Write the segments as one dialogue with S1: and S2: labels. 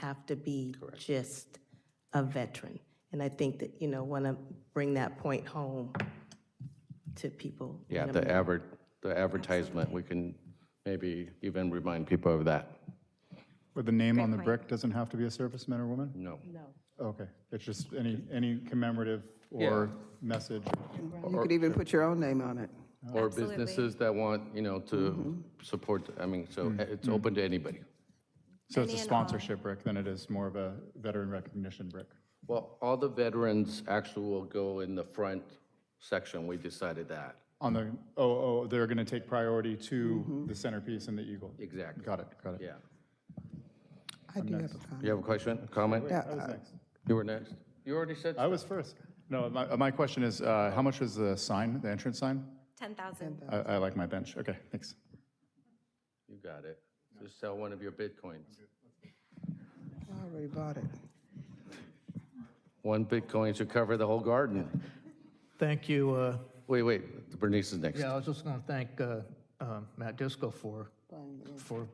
S1: have to be just a veteran. And I think that, you know, want to bring that point home to people.
S2: Yeah, the advert, the advertisement, we can maybe even remind people of that.
S3: But the name on the brick doesn't have to be a serviceman or woman?
S2: No.
S1: No.
S3: Okay, it's just any, any commemorative or message.
S4: You could even put your own name on it.
S2: Or businesses that want, you know, to support, I mean, so it's open to anybody.
S3: So it's a sponsorship brick than it is more of a veteran recognition brick.
S2: Well, all the veterans actually will go in the front section, we decided that.
S3: On the, oh, oh, they're going to take priority to the centerpiece and the eagle.
S2: Mm-hmm. Exactly.
S3: Got it, got it.
S2: Yeah.
S4: I do have a comment.
S2: You have a question, comment?
S3: I was next.
S2: You were next. You already said,
S3: I was first. No, my, my question is, uh, how much was the sign, the entrance sign?
S5: 10,000.
S3: I, I like my bench. Okay, thanks.
S2: you got it. Just sell one of your bitcoins.
S4: I already bought it.
S2: One bitcoin should cover the whole garden.
S6: Thank you. uh,
S2: Wait, wait, Bernice is next.
S6: Yeah, I was just going to thank uh, um, Matt Disco for, for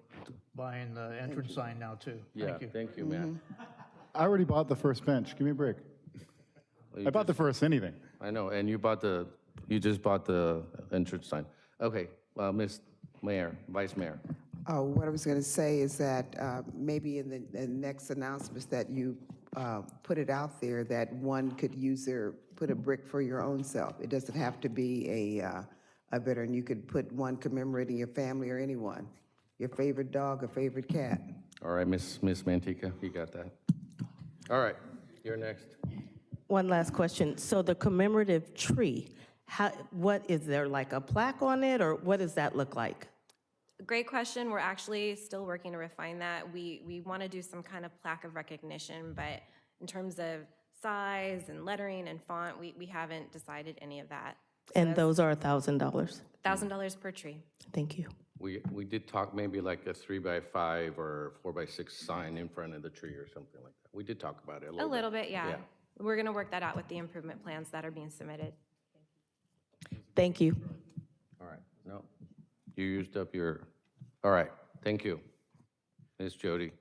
S6: buying the entrance sign now, too.
S2: Yeah,
S6: Thank you.
S2: thank you, man.
S3: I already bought the first bench. Give me a break. I bought the first anything.
S2: I know, and you bought the, you just bought the entrance sign. Okay, well, Ms. Mayor, Vice Mayor.
S4: Oh, what I was going to say is that uh, maybe in the the next announcements that you uh, put it out there, that one could use their, put a brick for your own self. It doesn't have to be a, uh, a veteran. You could put one commemorating your family or anyone, your favorite dog or favorite cat.
S2: All right, Ms. Ms. Mantica, you got that? All right, you're next.
S1: One last question. So the commemorative tree, how, what, is there like a plaque on it, or what does that look like?
S5: Great question. We're actually still working to refine that. We, we want to do some kind of plaque of recognition, but in terms of size and lettering and font, we, we haven't decided any of that.
S1: And those are $1,000.
S2: Hmm.
S5: $1,000 per tree.
S1: Thank you.
S2: We, we did talk maybe like a three by five or four by six sign in front of the tree or something like that. We did talk about it a
S5: A
S2: little bit.
S5: little bit, yeah.
S2: Yeah.
S5: We're going to work that out with the improvement plans that are being submitted.
S1: Thank you.
S2: All right, no, you used up your, all right, thank you. Ms. Jody.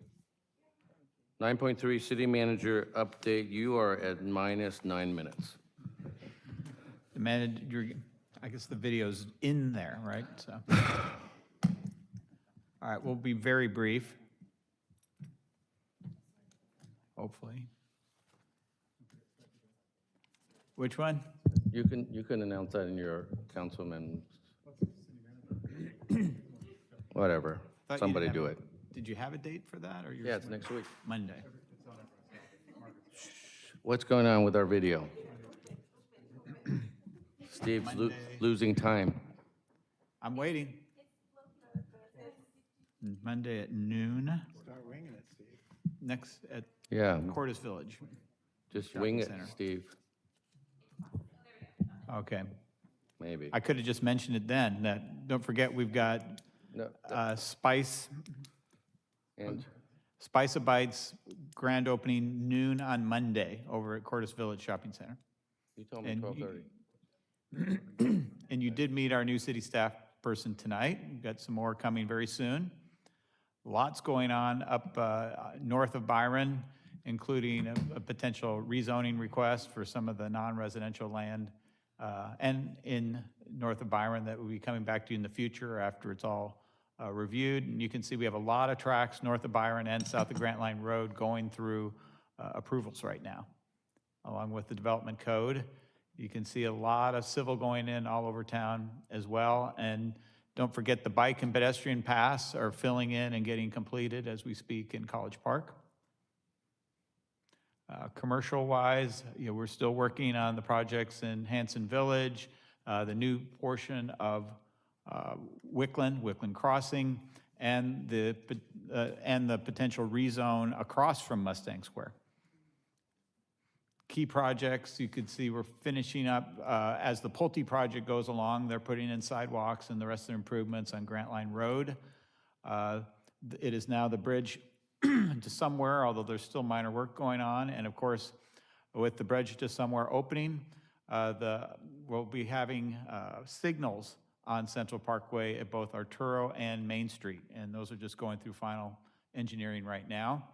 S2: 9.3, City Manager Update, you are at minus nine minutes.
S7: The manager, I guess the video's in there, right? So, All right, we'll be very brief. Hopefully. Which one?
S2: You can, you can announce that in your councilman. Whatever,
S7: Thought you
S2: somebody
S7: didn't
S2: do
S7: have
S2: it.
S7: a- Did you have a date for that, or you're?
S2: Yeah, it's next week.
S7: Monday.
S2: What's going on with our video? Steve's lo- losing time.
S7: I'm waiting. Monday at noon. Start winging it, Steve. Next, at
S2: Yeah,
S7: Cordis Village.
S2: just wing it,
S7: center.
S2: Steve,
S7: Okay.
S2: maybe.
S7: I could have just mentioned it then, that, don't forget, we've got
S2: No,
S7: uh, Spice,
S2: And
S7: Spice Abites grand opening noon on Monday over at Cordis Village Shopping Center.
S2: you told me
S7: And you-
S2: 12:30.
S7: And you did meet our new city staff person tonight. We've got some more coming very soon. Lots going on up uh, north of Byron, including a a potential rezoning request for some of the non-residential land uh, and in north of Byron that will be coming back to you in the future after it's all uh, reviewed. And you can see we have a lot of tracks north of Byron and south of Grant Line Road going through uh, approvals right now along with the development code. You can see a lot of civil going in all over town as well. And don't forget, the bike and pedestrian paths are filling in and getting completed as we speak in College Park. Uh, Commercial-wise, you know, we're still working on the projects in Hanson Village, uh, the new portion of uh, Wickland, Wickland Crossing, and the, pot- uh, and the potential rezone across from Mustang Square key projects. You could see we're finishing up, uh, as the Pulte project goes along, they're putting in sidewalks and the rest of their improvements on Grant Line Road. Uh, th- It is now the bridge to somewhere, although there's still minor work going on. And of course, with the bridge to somewhere opening, uh, the, we'll be having uh, signals on Central Parkway at both Arturo and Main Street. And those are just going through final engineering right now.